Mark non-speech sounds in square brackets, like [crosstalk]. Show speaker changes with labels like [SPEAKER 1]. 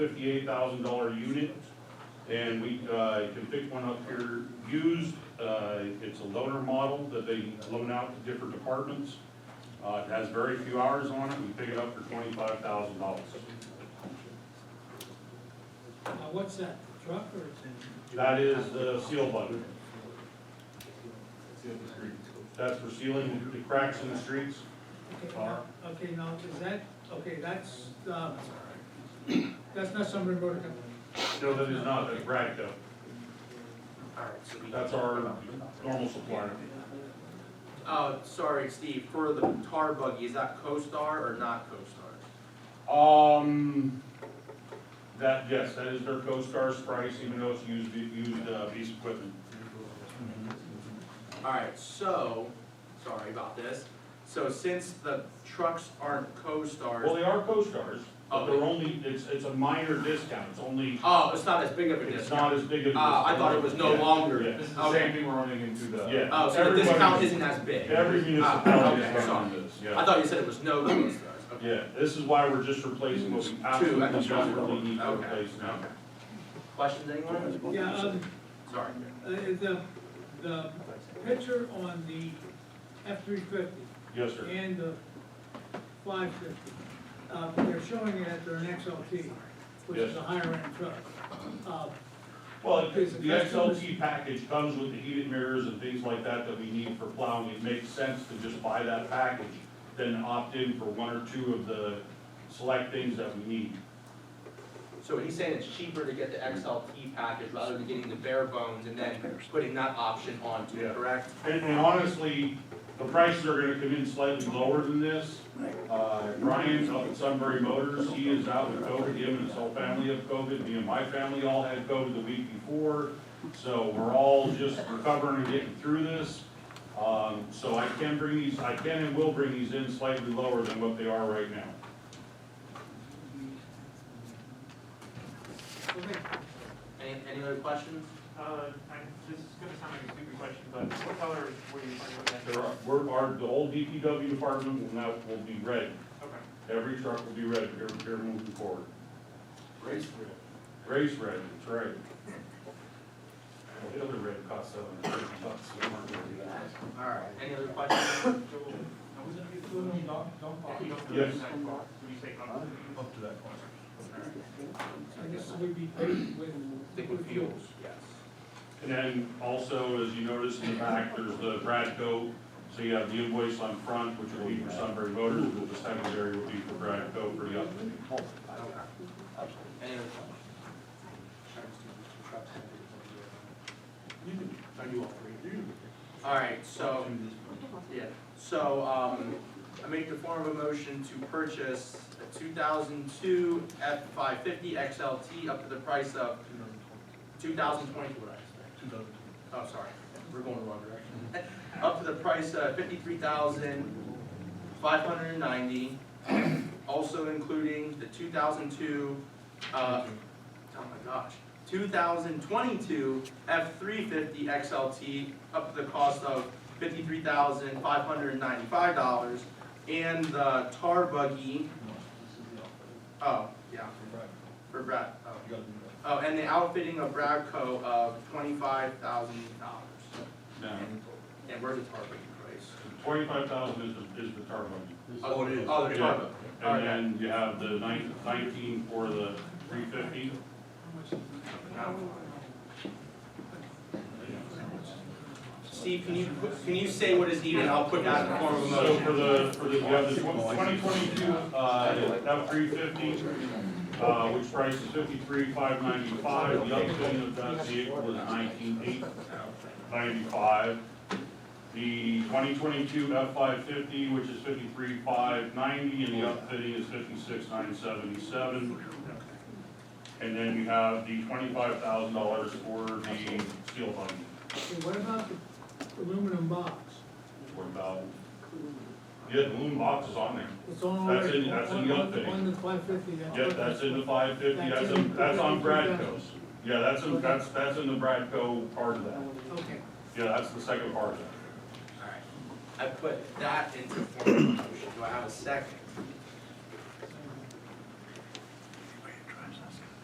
[SPEAKER 1] fifty-eight thousand dollar unit, and we, uh, can pick one up here used, uh, it's a loaner model that they loan out to different departments. Uh, it has very few hours on it, we pick it up for twenty-five thousand dollars.
[SPEAKER 2] Now, Uh, what's that, truck or is it?
[SPEAKER 1] That is the seal button, that's for sealing the cracks in the streets.
[SPEAKER 2] Okay,
[SPEAKER 1] Car.
[SPEAKER 2] now- Okay, now, is that, okay, that's, uh, that's not Summerlin Road Company.
[SPEAKER 1] No, that is not, that's Bradco,
[SPEAKER 3] Alright, so we.
[SPEAKER 1] that's our normal supplier.
[SPEAKER 3] Uh, sorry, Steve, for the tar buggy, is that CoStar or not CoStar?
[SPEAKER 1] Um, that, yes, that is their CoStar's price, even though it's used, used, uh, piece of equipment.
[SPEAKER 3] Alright, so, sorry about this, so since the trucks aren't
[SPEAKER 1] Well,
[SPEAKER 3] CoStars,
[SPEAKER 1] they are CoStar's, but they're only, it's, it's a minor discount, it's only,
[SPEAKER 3] oh, it's not as big of a
[SPEAKER 1] it's
[SPEAKER 3] discount.
[SPEAKER 1] not as big of a.
[SPEAKER 3] Ah, I thought it was no
[SPEAKER 1] Yeah,
[SPEAKER 3] longer.
[SPEAKER 1] yeah,
[SPEAKER 4] This is the same thing we're running into the.
[SPEAKER 1] Yeah.
[SPEAKER 3] Oh, so the
[SPEAKER 1] Everybody-
[SPEAKER 3] discount isn't as big?
[SPEAKER 1] Every
[SPEAKER 3] Ah,
[SPEAKER 1] municipality
[SPEAKER 3] okay,
[SPEAKER 1] is
[SPEAKER 3] sorry.
[SPEAKER 1] running this,
[SPEAKER 3] I
[SPEAKER 1] yeah.
[SPEAKER 3] thought you said it was no CoStars, okay.
[SPEAKER 1] Yeah, this is why we're just replacing what we absolutely
[SPEAKER 3] that's right.
[SPEAKER 1] desperately need to
[SPEAKER 3] Okay.
[SPEAKER 1] replace now.
[SPEAKER 3] Questions, anyone?
[SPEAKER 2] Yeah, um,
[SPEAKER 3] Sorry.
[SPEAKER 2] uh, the, the picture on the F three fifty
[SPEAKER 1] Yes, sir.
[SPEAKER 2] and the five fifty, uh, they're showing it at their XLT, which is a higher end truck. Uh,
[SPEAKER 1] Well, the
[SPEAKER 2] Is it customers?
[SPEAKER 1] XLT package comes with the heated mirrors and things like that that we need for plowing. It makes sense to just buy that package, then opt in for one or two of the select things that we need.
[SPEAKER 3] So he's saying it's cheaper to get the XLT package rather than getting the bare bones and then putting that option onto
[SPEAKER 1] Yeah.
[SPEAKER 3] it, correct?
[SPEAKER 1] And, and honestly, the prices are gonna come in slightly lower than this. Uh, Brian's up at Sunbury Motors, he is out with COVID, him and his whole family have COVID, me and my family all had COVID the week before. So we're all just recovering and getting through this. Um, so I can bring these, I can and will bring these in slightly lower than what they are right now.
[SPEAKER 2] Uh, okay,
[SPEAKER 3] Any, any other questions?
[SPEAKER 5] Uh, I'm, this is gonna sound like a stupid question, but what color were you planning on that?
[SPEAKER 1] There are, we're, our, the whole DPW department will now, will be red.
[SPEAKER 5] Okay,
[SPEAKER 1] Every truck will be red here, here moving forward.
[SPEAKER 3] Race
[SPEAKER 1] Race red, that's right. The other red cost seven hundred bucks, we weren't gonna do that.
[SPEAKER 3] Alright. Any other [coughs] questions?
[SPEAKER 5] If you don't do
[SPEAKER 1] Yes.
[SPEAKER 5] that, would you say color?
[SPEAKER 4] Up to that point.
[SPEAKER 2] I guess it would be paid with.
[SPEAKER 3] Stick with fuels, yes.
[SPEAKER 1] And then also, as you notice in the back, there's the Bradco, so you have the invoice on front, which will be for Sunbury Motors, but the secondary will be for Bradco for the upfitting.
[SPEAKER 3] Any other questions? Alright, so, yeah, so, um, I make the form of a motion to purchase a two thousand two F five fifty XLT up to the price of two thousand twenty, what did I say? Oh, sorry, we're going the wrong direction. Up to the price of fifty-three thousand, five hundred and ninety, also including the two thousand two, uh, oh my gosh, two thousand twenty-two F three fifty XLT, up to the cost of fifty-three thousand, five hundred and ninety-five dollars, and the tar buggy, oh, yeah, for Brad, oh. Oh, and the outfitting of Bradco of twenty-five thousand dollars.
[SPEAKER 1] Now,
[SPEAKER 3] And where's the tar buggy price?
[SPEAKER 1] twenty-five thousand is the, is the tar money.
[SPEAKER 3] Oh, it is. Oh, the tar buggy.
[SPEAKER 1] And then you have the nine- nineteen for the three fifty.
[SPEAKER 3] Steve, can you, put- can you say what is needed, I'll put that in the form of a
[SPEAKER 1] So
[SPEAKER 3] motion.
[SPEAKER 1] for the, for the, you have the twenty twenty-two, uh, F three fifty, uh, which price is fifty-three, five ninety-five, the upfitting of that vehicle is nineteen eight ninety-five. The twenty twenty-two F five fifty, which is fifty-three, five ninety, and the upfitting is fifty-six, nine seventy-seven. And then you have the twenty-five thousand dollars for the steel body,
[SPEAKER 2] Okay, what about the aluminum box?
[SPEAKER 1] for about, yeah, the loom box is on there.
[SPEAKER 2] It's on.
[SPEAKER 1] That's
[SPEAKER 2] already-
[SPEAKER 1] in- that's in the
[SPEAKER 2] on-
[SPEAKER 1] update.
[SPEAKER 2] On the five fifty.
[SPEAKER 1] Yep, that's in the five fifty, that's, in- that's on Bradco's. Yeah, that's, in- that's, that's in the Bradco part of that.
[SPEAKER 2] Okay.
[SPEAKER 1] Yeah, that's the second part of that.
[SPEAKER 3] Alright, I put that into the form of a motion, do I have a second?